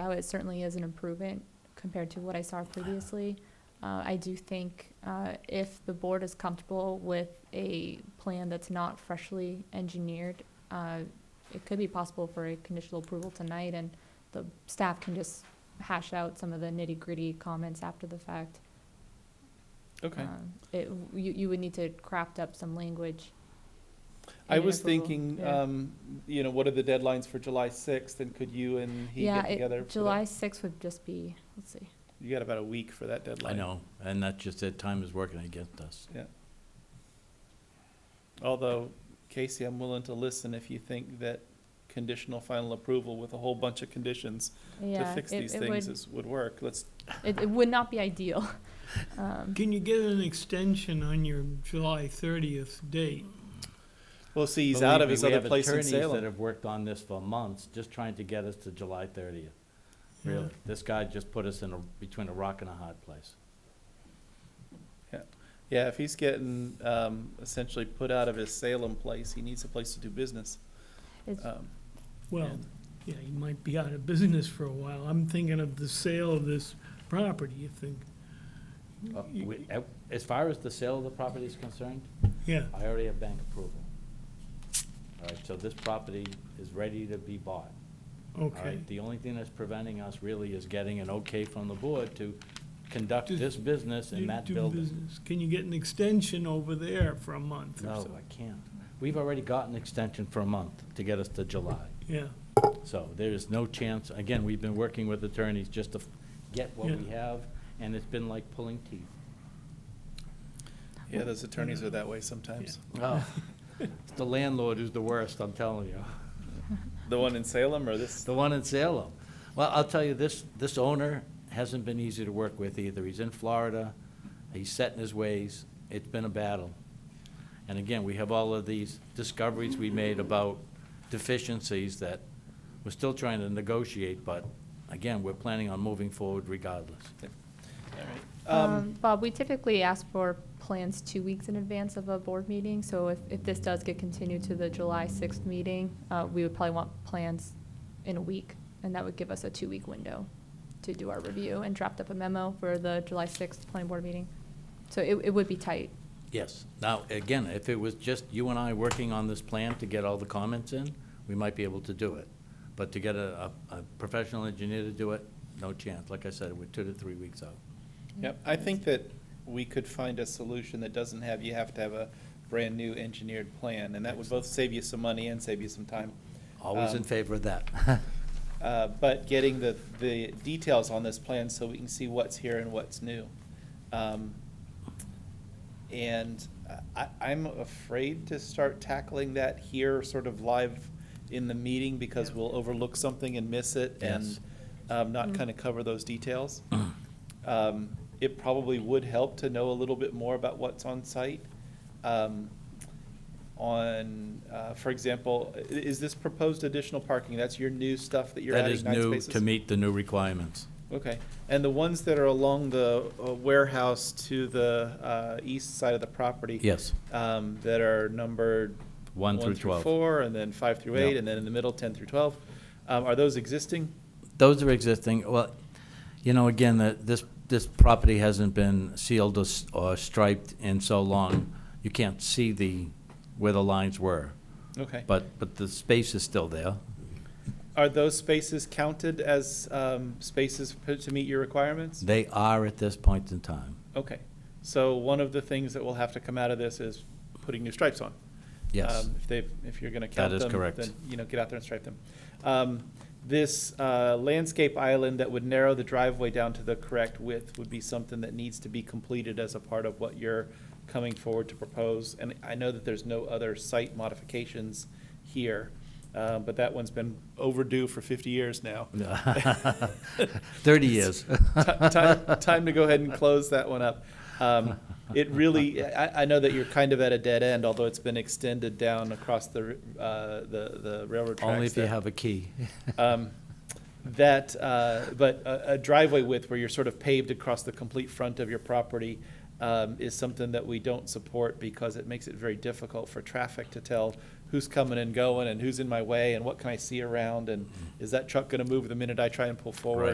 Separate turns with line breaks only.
out, it certainly is an improvement compared to what I saw previously. Uh, I do think, uh, if the board is comfortable with a plan that's not freshly engineered, uh, it could be possible for a conditional approval tonight, and the staff can just hash out some of the nitty-gritty comments after the fact.
Okay.
Um, It, you, you would need to craft up some language.
I
in an
was
approval,
thinking,
yeah.
um, you know, what are the deadlines for July sixth, and could you and he
Yeah,
get
it-
together? for that?
July sixth would just be, let's see,
You got about a week for that
I
deadline.
know, and that's just that time is working against us.
Although, Casey, I'm willing to listen if you think that conditional final approval with a whole bunch of conditions to
yeah.
fix
it-
these
it
things
would-
is, would work. Let's,
It, it would not be ideal. Um,
Can you get an extension on your July thirtieth date?
we'll see, he's
Believe
out of
me,
his
we
other
have
place in
attorneys That
Salem.
have worked on this for months, just trying to get us to July thirtieth. Really, this guy just put us in a, between a rock and a hard place.
Yeah, if he's getting, um, essentially put out of his Salem place, he needs a place to do business.
it's-
Um,
Well, yeah, you might be out of business for a while. I'm thinking of the sale of this property, you think,
Uh, we- uh, As far as the sale of the property is concerned,
yeah.
I already have bank approval. All right, so this property is ready to be bought. All
Okay,
right, the only thing that's preventing us really is getting an okay from the board to conduct this business
Do-
in that
do
building.
business. Can you get an extension over there for a month or
No,
so?
I can't. We've already got an extension for a month to get us to July.
Yeah,
So there is no chance, again, we've been working with attorneys just to f- get what we
Yeah.
have, and it's been like pulling teeth.
Yeah, those attorneys are that way sometimes.
Oh, It's the landlord who's the worst, I'm telling you.
The one in Salem or this?
The one in Salem. Well, I'll tell you, this, this owner hasn't been easy to work with either. He's in Florida, he's set in his ways, it's been a battle. And again, we have all of these discoveries we made about deficiencies that we're still trying to negotiate, but again, we're planning on moving forward regardless.
All right.
um, Bob, we typically ask for plans two weeks in advance of a board meeting, so if, if this does get continued to the July sixth meeting, uh, we would probably want plans in a week, and that would give us a two-week window to do our review and draft up a memo for the July sixth planning board meeting. So it, it would be tight.
Yes. Now, again, if it was just you and I working on this plan to get all the comments in, we might be able to do it. But to get a, a a professional engineer to do it, no chance. Like I said, we're two to three weeks out.
Yep, I think that we could find a solution that doesn't have, you have to have a brand-new engineered plan, and that would both save you some money and save you some time.
Always
Um,
in favor of that.
Uh, But getting the, the details on this plan so we can see what's here and what's new. Um, And I, I'm afraid to start tackling that here, sort of live in the meeting, because
Yeah.
we'll overlook something and miss it and
Yes.
um, not kind of cover those details. Um, It probably would help to know a little bit more about what's on site. Um, On, uh, for example, i- is this proposed additional parking? That's your new stuff that you're
That
adding
is
nine
new
spaces?
to meet the new requirements.
Okay, and the ones that are along the uh, warehouse to the uh, east side of the property?
Yes.
um, That are numbered?
One through 12.
Four, and then five through
Yeah.
eight, and then in the middle, 10 through 12. Um, Are those existing?
Those are existing. Well, you know, again, that this, this property hasn't been sealed or s- or striped in so long, you can't see the, where the lines were.
Okay.
But, but the space is still there.
Are those spaces counted as um, spaces p- to meet your requirements?
They are at this point in time.
Okay, so one of the things that will have to come out of this is putting new stripes on.
Yes.
Um, If they, if you're gonna count them.
is correct.
Then, you know, get out there and stripe them. Um, This uh, landscape island that would narrow the driveway down to the correct width would be something that needs to be completed as a part of what you're coming forward to propose. And I know that there's no other site modifications here, uh, but that one's been overdue for fifty years now.
Thirty years.
Ti- time, time to go ahead and close that one up. Um, it really, I, I know that you're kind of at a dead end, although it's been extended down across the, uh, the, the railroad tracks.
Only if you
there.
have a key.
Um, that, uh, but a, a driveway width where you're sort of paved across the complete front of your property, um, is something that we don't support because it makes it very difficult for traffic to tell who's coming and going and who's in my way and what can I see around and is that truck gonna move the minute I try and pull forward?